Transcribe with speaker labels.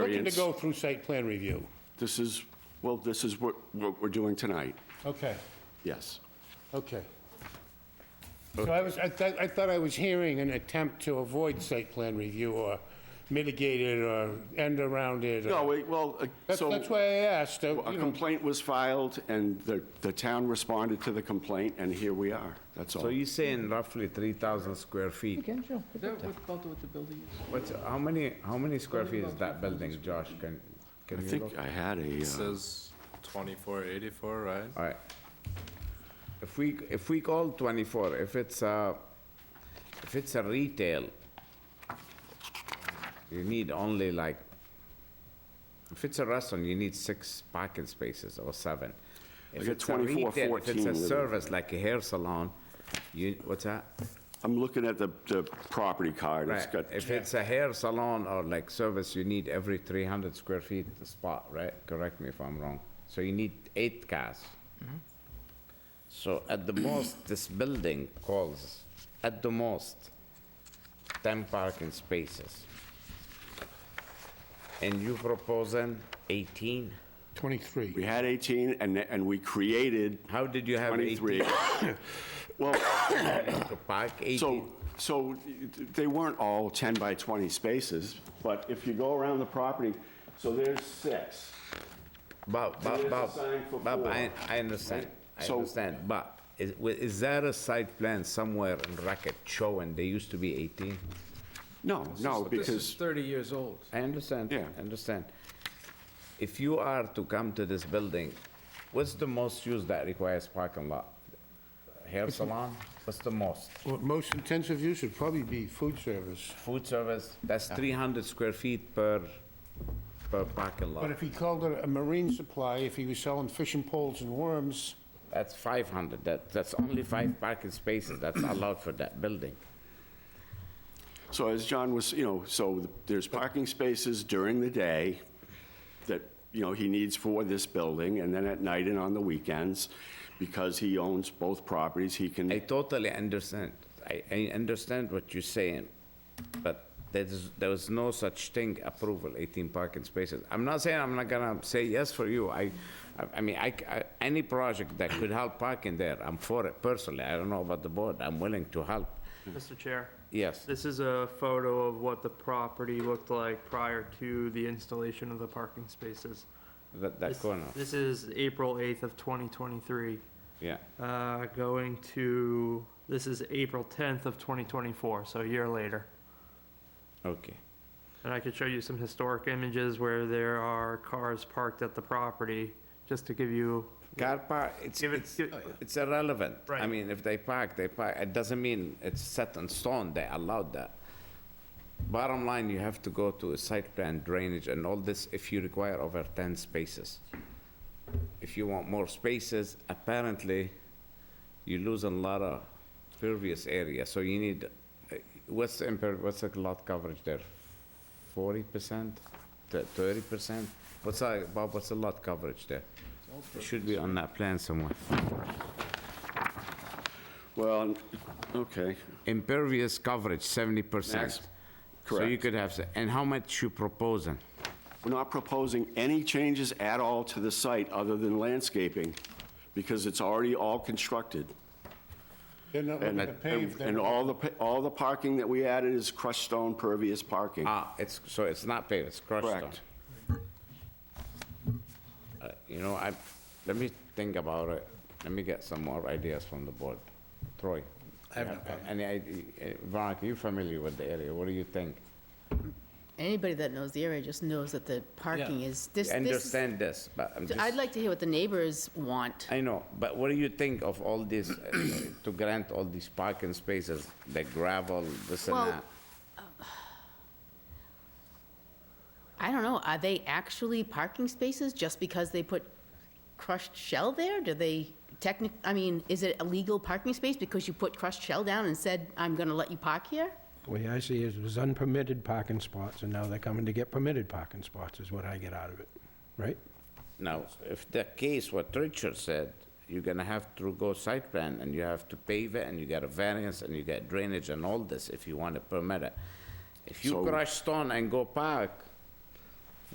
Speaker 1: looking to
Speaker 2: variance.
Speaker 1: go through site plan review.
Speaker 2: This is, well, this is what, what we're doing tonight,
Speaker 1: Okay,
Speaker 2: yes.
Speaker 1: okay. So I was, I thought, I thought I was hearing an attempt to avoid site plan review or mitigate it or end around it. or-
Speaker 2: No, wait, well, uh,
Speaker 1: That's,
Speaker 2: so...
Speaker 1: that's why I asked, uh,
Speaker 2: A
Speaker 1: you know,
Speaker 2: complaint was filed, and the, the town responded to the complaint, and here we are. That's
Speaker 3: So
Speaker 2: all.
Speaker 3: you're saying roughly 3,000 square feet?
Speaker 4: Is that what about with the building is?
Speaker 3: What's, how many, how many square feet is that building, Josh? Can,
Speaker 2: I
Speaker 3: can you look?
Speaker 2: think I had a, uh,
Speaker 5: Says 2484, right?
Speaker 3: All right. If we, if we call 24, if it's a, if it's a retail, you need only like, if it's a restaurant, you need six parking spaces or seven. If
Speaker 2: got
Speaker 3: it's a
Speaker 2: 24,
Speaker 3: retail, If
Speaker 2: 14
Speaker 3: it's a
Speaker 2: living.
Speaker 3: service, like a hair salon, you, what's that?
Speaker 2: I'm looking at the, the property card. It's
Speaker 3: Right,
Speaker 2: got,
Speaker 3: if it's a hair salon or like service, you need every 300 square feet spot, right? Correct me if I'm wrong. So you need eight cars. So at the most, this building calls, at the most, 10 parking spaces. And you proposing 18?
Speaker 1: 23.
Speaker 2: we had 18, and, th- and we created
Speaker 3: How did you have
Speaker 2: 23.
Speaker 3: 18?
Speaker 2: Well,
Speaker 3: To park 18?
Speaker 2: so, so they weren't all 10 by 20 spaces, but if you go around the property, so there's six.
Speaker 3: Bob,
Speaker 2: So
Speaker 3: Bob,
Speaker 2: there's a
Speaker 3: Bob,
Speaker 2: sign for
Speaker 3: Bob,
Speaker 2: four,
Speaker 3: I, I understand, I
Speaker 2: So-
Speaker 3: understand, but is, wi- is there a site plan somewhere in Racket showing they used to be 18?
Speaker 2: No, no,
Speaker 5: This is
Speaker 2: because,
Speaker 5: 30 years old.
Speaker 3: I understand,
Speaker 2: Yeah.
Speaker 3: I understand. If you are to come to this building, what's the most use that requires parking lot? Hair salon, what's the most?
Speaker 1: Well, Most intensive use would probably be food service.
Speaker 3: Food service, that's 300 square feet per, per parking
Speaker 1: But
Speaker 3: lot,
Speaker 1: if he called it a marine supply, if he was selling fishing poles and worms,
Speaker 3: that's 500, that, that's only five parking spaces that's allowed for that building.
Speaker 2: so as John was, you know, so there's parking spaces during the day that, you know, he needs for this building, and then at night and on the weekends, because he owns both properties, he
Speaker 3: I
Speaker 2: can,
Speaker 3: totally understand. I, I understand what you're saying, but there's, there was no such thing approval, 18 parking spaces. I'm not saying I'm not gonna say yes for you. I, I- I mean, I, c- I- any project that could help parking there, I'm for it personally. I don't know about the board. I'm willing to help.
Speaker 6: Mr. Chair,
Speaker 3: Yes.
Speaker 6: this is a photo of what the property looked like prior to the installation of the parking spaces.
Speaker 3: That, that
Speaker 6: This-
Speaker 3: corner,
Speaker 6: This is April 8th of 2023,
Speaker 3: yeah.
Speaker 6: uh, going to, this is April 10th of 2024, so a year later.
Speaker 3: Okay.
Speaker 6: And I could show you some historic images where there are cars parked at the property, just to give you,
Speaker 3: Car park, it's,
Speaker 6: Give it-
Speaker 3: it's
Speaker 6: give-
Speaker 3: it's irrelevant. I
Speaker 6: Right.
Speaker 3: mean, if they park, they park. It doesn't mean it's set in stone, they allowed that. Bottom line, you have to go to a site plan drainage and all this if you require over 10 spaces. If you want more spaces, apparently, you lose a lot of pervious area, so you need, uh, what's the imper, what's the lot coverage there? 40%? Th- 30%? What's that, Bob, what's the lot coverage there? It should be on that plan somewhere.
Speaker 2: well, okay.
Speaker 3: Impervious coverage, 70%.
Speaker 2: Max,
Speaker 3: So you
Speaker 2: correct.
Speaker 3: could have, s- and how much you proposing?
Speaker 2: We're not proposing any changes at all to the site other than landscaping, because it's already all constructed.
Speaker 1: they're not
Speaker 2: And,
Speaker 1: looking to pave
Speaker 2: and
Speaker 1: them.
Speaker 2: all the, pa- all the parking that we added is crushed stone pervious parking.
Speaker 3: Ah, it's, so it's not paved, it's crushed stone.
Speaker 2: Correct.
Speaker 3: Uh, You know, I, let me think about it. Let me get some more ideas from the board. Troy? I have Any idea, eh, Veronica, you familiar with the area, what do you think?
Speaker 7: Anybody that knows the area just knows that the parking is, this,
Speaker 3: I
Speaker 7: this,
Speaker 3: understand this, but I'm just.
Speaker 7: I'd like to hear what the neighbors want.
Speaker 3: I know, but what do you think of all this, uh, to grant all these parking spaces, the gravel, this and
Speaker 7: Well,
Speaker 3: that?
Speaker 7: I don't know, are they actually parking spaces just because they put crushed shell there? Do they technic, I mean, is it a legal parking space because you put crushed shell down and said, I'm gonna let you park here?
Speaker 8: Way I see is it was unpermitted parking spots, and now they're coming to get permitted parking spots, is what I get out of it, right?
Speaker 3: Now, if the case what Richard said, you're gonna have to go site plan, and you have to pave it, and you get a variance, and you get drainage and all this, if you want to permit it. If you
Speaker 2: So-
Speaker 3: crush stone and go park,